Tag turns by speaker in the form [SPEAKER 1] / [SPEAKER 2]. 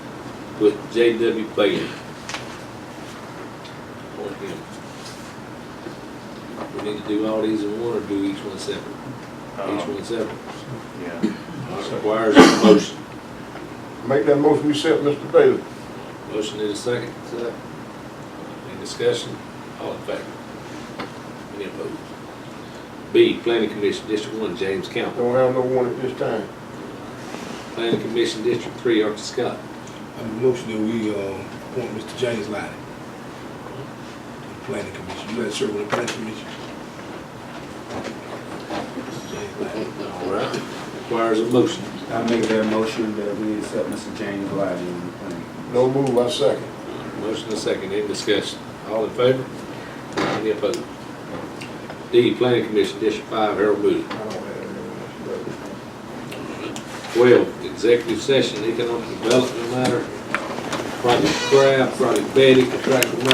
[SPEAKER 1] with J.W. Bailey. Appoint him. We need to do all these in one or do each one separate? Each
[SPEAKER 2] Um,
[SPEAKER 1] one separate.
[SPEAKER 2] Yeah.
[SPEAKER 1] That Requires a motion.
[SPEAKER 3] Make that motion you said, Mr. Bailey.
[SPEAKER 1] Motion is second.
[SPEAKER 3] Second.
[SPEAKER 1] Any discussion? All in favor? Any opposed? B, Planning Commission, District One, James Campbell.
[SPEAKER 3] Don't have no one at this time.
[SPEAKER 1] Planning Commission, District Three, Archie Scott.
[SPEAKER 4] I make a motion that we uh, appoint Mr. James Lottie to the planning commission. You had served on the planning commission? Mr. James Lottie.
[SPEAKER 1] All right. Requires a motion.
[SPEAKER 5] I make that motion that we accept Mr. James Lively in the planning.
[SPEAKER 3] No move, I second.
[SPEAKER 1] Motion and second, any discussion? All in favor? Any opposed? D, Planning Commission, District Five, Harold Moody.
[SPEAKER 3] I don't have no one, Mr. Bailey.
[SPEAKER 1] Twelve, Executive Session, Economic Development Matter, Project Craft, Project Betty, Contractual Matter,